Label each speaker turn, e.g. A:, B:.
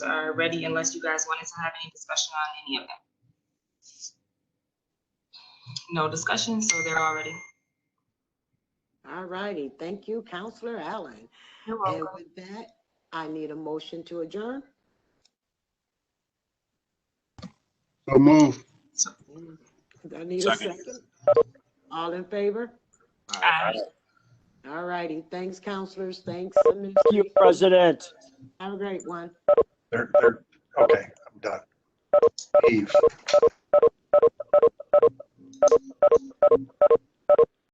A: are ready unless you guys wanted to have any discussion on any of them. No discussion, so they're already.
B: All righty, thank you, Counselor Allen.
A: You're
B: And with that, I need a motion to adjourn.
C: So move.
B: I need a
D: Second.
B: second. All in favor?
A: Aye.
B: All righty, thanks, counselors, thanks.
E: Thank you, President.
B: Have a great one.
C: They're, they're, okay, I'm done. Eve.